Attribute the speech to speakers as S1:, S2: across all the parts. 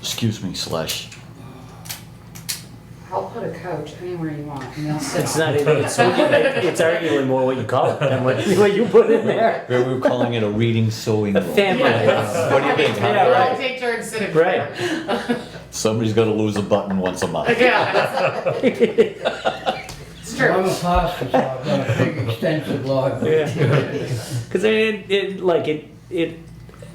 S1: excuse me, slush.
S2: I'll put a coach anywhere you want and they'll sit
S3: It's
S2: on
S3: not
S2: it.
S3: even, it's, it's arguably more what you call it than what, what you put in there.
S1: We were calling it a reading sewing
S3: The
S1: room.
S3: family.
S2: Yeah.
S1: What do you think?
S3: Yeah,
S2: We'll
S3: right.
S2: take turns sitting.
S3: Right.
S1: Somebody's gonna lose a button once a month.
S2: Yeah, it's
S4: I'm
S2: true.
S4: a pastor, so I've got a big extensive library.
S3: Because it, it, like it, it,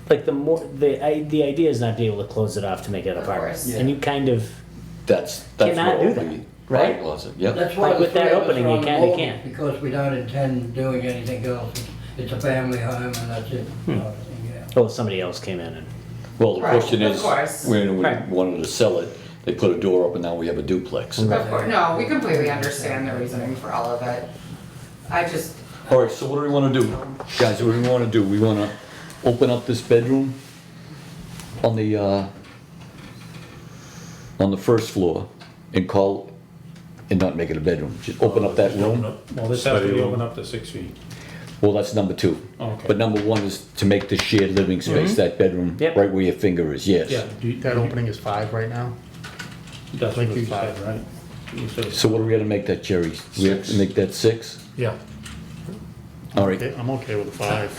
S3: like the more the I, the idea is not to be able to close it off to make it an
S2: Of
S3: apartment,
S2: course.
S3: and you kind of
S1: That's, that's
S3: Cannot
S1: what
S3: do
S1: we.
S3: that, right?
S1: Was it, yep.
S4: That's why
S3: Like
S4: the
S3: with that
S4: three of us
S3: opening,
S4: are
S3: you
S4: on the
S3: can, you
S4: board,
S3: can't.
S4: Because we don't intend doing anything else. It's a family home and that's it. Yeah.
S3: oh somebody else came in and
S1: Well, the
S2: Right,
S1: question
S2: of
S1: is,
S2: course.
S1: when we
S3: Right.
S1: wanted to sell it, they put a door up and now we have a duplex.
S2: Of course, no, we completely understand the reasoning for all of it. I just,
S1: All right, so what do we wanna do? Guys, what do we wanna do? We wanna open up this bedroom on the, uh, on the first floor and call, and not make it a bedroom, just open up that room.
S5: Well, this has to
S6: Study
S5: be
S6: room.
S5: opened up to six feet.
S1: Well, that's number two.
S5: Oh, Okay. Mm-hmm.
S1: But number one is to make the shared living space, that bedroom,
S3: Yep.
S1: right where your finger is, yes.
S6: Do you- That opening is five right now?
S5: That's
S6: Like
S5: what you
S6: you
S5: said, right? You said-
S1: So what are we gonna make that, Jerry? We have to
S6: Six.
S1: make that six?
S6: Yeah.
S1: All right,
S6: Okay, I'm okay with the five.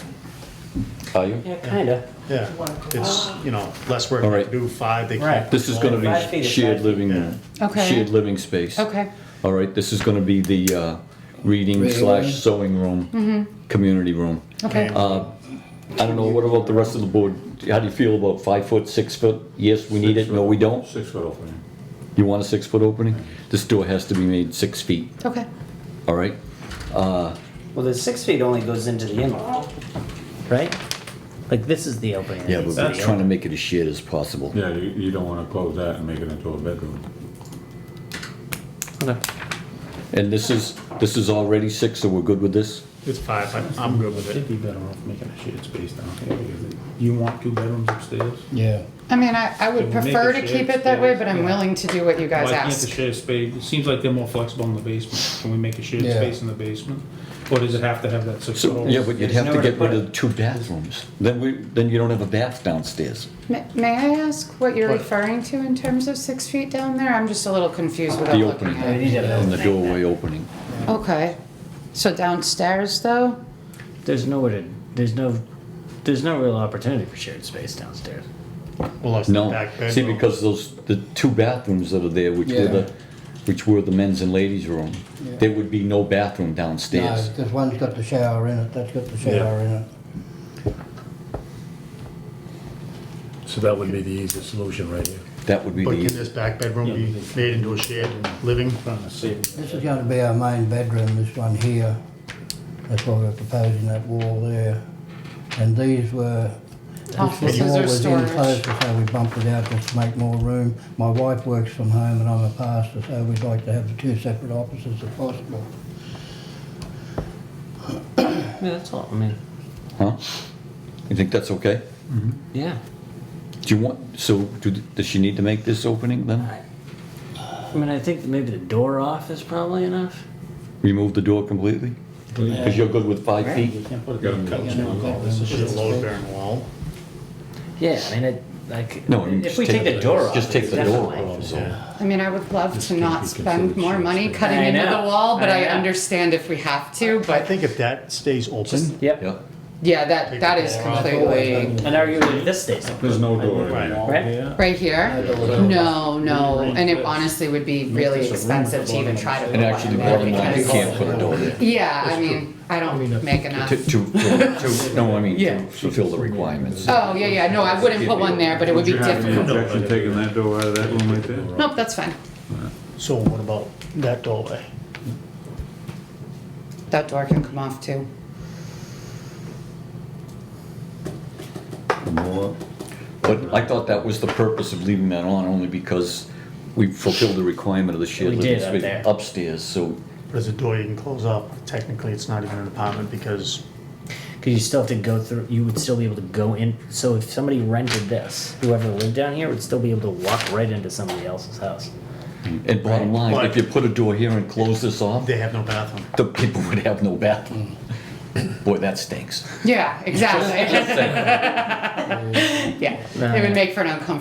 S1: are you?
S3: yeah kind of
S6: Yeah, it's, you know, less work
S1: All
S6: to
S1: right.
S6: do, five, they
S3: Right.
S6: can't.
S1: This is gonna
S3: Five feet
S1: be
S3: is
S1: shared
S3: five feet,
S1: living, uh,
S6: yeah.
S2: Okay.
S1: shared living space.
S2: okay,
S1: All right, this is gonna be the, uh, reading slash sewing
S2: Mm-hmm.
S1: room, community room.
S2: okay.
S1: I don't know, what about the rest of the board? How do you feel about five foot, six foot? Yes, we need it, no, we don't?
S5: Six foot opening.
S1: You want a six foot opening? This door has to be made six feet,
S2: Okay.
S1: all right?
S3: well the six feet only goes into the in-law, right? Like this is the opening. that
S1: Yeah,
S3: needs
S1: but
S3: to
S1: we're
S3: be
S1: trying to
S3: open.
S1: make it as shared as possible.
S5: Yeah, you, you don't wanna close that and make it into a bedroom.
S1: And this is, this is already six, so we're good with this?
S6: It's five, I'm, I'm good with
S5: It'd
S6: it.
S5: be better off making a shared space down here, because it- you want two bedrooms upstairs?
S6: Yeah.
S2: I mean, I, I would
S5: Can we make
S2: prefer
S5: a
S2: to
S5: shared
S2: keep it that way,
S5: space?
S2: but I'm
S5: Yeah.
S2: willing to do what you guys
S5: Why can't the
S2: ask.
S5: shared space, it seems like they're more flexible in the basement, can we make a shared
S6: Yeah.
S5: space in the basement? Or does it have to have that six
S1: So,
S5: foot?
S1: yeah, but you'd have to
S3: nowhere to
S1: get
S3: put
S1: rid of
S3: it.
S1: the two bathrooms. Then we, then you don't have a bath downstairs.
S2: May, may I ask what you're
S6: What?
S2: referring to in terms of six feet down there? I'm just a little confused without
S1: The
S2: looking
S1: opening,
S2: at it.
S1: and the doorway opening.
S2: Okay, so downstairs though?
S3: There's nowhere to there's no there's no real opportunity for shared space downstairs.
S6: Well, that's the
S1: No,
S6: back
S1: see,
S6: bedroom.
S1: because those, the two bathrooms that are there, which were the, which were the men's and ladies' room, there would be no bathroom
S4: No,
S1: downstairs.
S4: this one's got the shower in it, that's got the
S6: Yeah.
S4: shower in it.
S7: So that would be the easiest solution right here.
S1: That would be
S6: But can
S1: the,
S6: this back bedroom be made into a shared living?
S5: Trying to save.
S4: This is gonna be our main bedroom, this one here. That's what we're proposing, that wall there. And these were, this
S2: Offices or
S4: wall was in
S2: storage?
S4: closer, so we bumped it out just to make more room. My wife works from home and I'm a pastor, so we'd like to have the two separate offices if possible.
S3: Yeah, that's all. I mean,
S1: huh? You think that's okay?
S3: yeah.
S1: Do you want, so, do, does she need to make this opening then?
S3: I mean, I think maybe the door off is probably enough.
S1: Remove the door completely? Because you're good with five feet?
S5: Can't put a couch down.
S6: This is a load bearing wall.
S3: Yeah, I mean, it, like
S1: No, you
S3: if
S1: just
S3: we take
S1: take
S3: the
S1: the-
S3: door off,
S1: just take
S3: it's
S1: the door
S3: definitely-
S1: off.
S6: Yeah.
S2: I mean, I would love to not spend more money cutting
S3: I
S2: into the
S3: know,
S2: wall, but
S3: I
S2: I
S3: know.
S2: understand if we have to,
S6: I
S2: but
S6: think if that stays open,
S3: Yep.
S1: Yeah,
S2: yeah, that, that is completely,
S3: And arguably this stays open.
S5: There's no door.
S6: Right.
S3: Right.
S2: right here? No, no, and it honestly would be really expensive to even try to put
S1: and actually, the
S2: one
S1: bottom
S2: in there
S1: line, you
S2: because,
S1: can't put a door there.
S2: yeah, I mean, I don't make enough.
S1: To, to, to, no, I mean,
S2: Yeah.
S1: to fulfill the requirements.
S2: Oh, yeah, yeah, no, I wouldn't put one there, but it would be difficult.
S5: objection taking that door out of that room right there?
S2: Nope, that's fine.
S6: so what about that doorway?
S2: That door can come off too.
S3: Oh.
S1: But I thought that was the purpose of leaving that on, only because we fulfilled the requirement of the shared
S3: We
S1: living
S3: did up there.
S1: space upstairs, so
S6: But as a door you can close up, technically it's not even an apartment because
S3: Because you still have to go through. You would still be able to go in. So if somebody rented this, whoever lived down here would still be able to walk right into somebody else's house.
S1: And bottom line, if
S6: But-
S1: you put a door here and close this off,
S6: they have no bathroom.
S1: the people would have no bathroom. Boy, that stinks.
S2: Yeah, exactly.
S1: Just saying.
S2: Yeah, it would make for an uncomfortable